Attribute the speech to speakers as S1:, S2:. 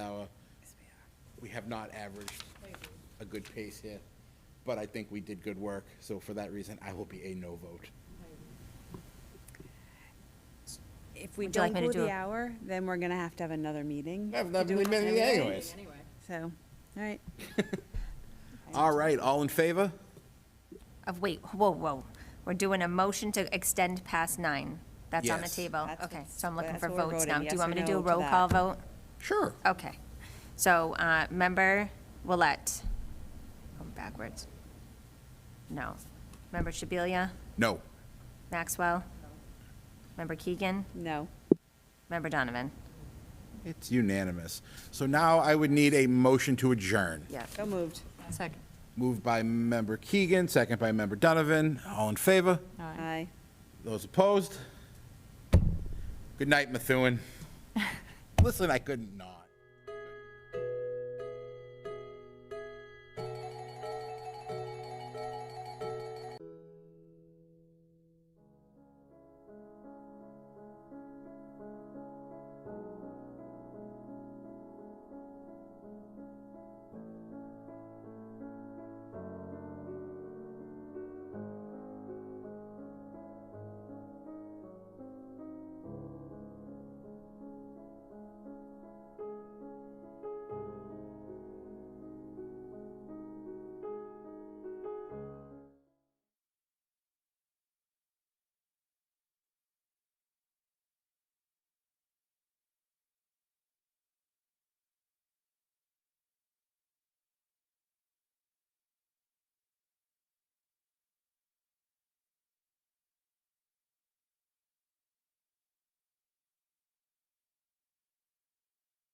S1: have not averaged a good pace here, but I think we did good work, so for that reason, I will be a no vote.
S2: If we
S3: Would you like
S2: don't
S3: me to
S2: go
S3: do
S2: the
S3: a-
S2: hour, then we're gonna have to have another meeting.
S1: I've not
S2: Do
S1: been
S2: another
S1: admitted
S2: meeting.
S1: anyways.
S2: So, all right.
S1: All right, all in favor?
S3: Of, wait, whoa, whoa. We're doing a motion to extend past nine. That's on the
S1: Yes.
S3: table.
S2: That's
S3: Okay,
S2: what's-
S3: so I'm looking
S2: that's
S3: for
S2: what we're
S3: votes
S2: voting,
S3: now. Do
S2: yes
S3: you want
S2: or
S3: me to do a
S2: no to
S3: roll
S2: that.
S3: call vote?
S1: Sure.
S3: Okay. So, uh, member Willett, i backwards. No. Member Shabilia?
S1: No.
S3: Maxwell? Member Keegan?
S2: No.
S3: Member Donovan?
S1: It's unanimous. So now I would need a motion to adjourn.
S3: Yeah.
S2: So moved.
S3: Second.
S1: Moved by member Keegan, second by member Donovan. All in favor?
S2: Aye.
S1: Those opposed? Good night, Methuen. Listen, I couldn't not.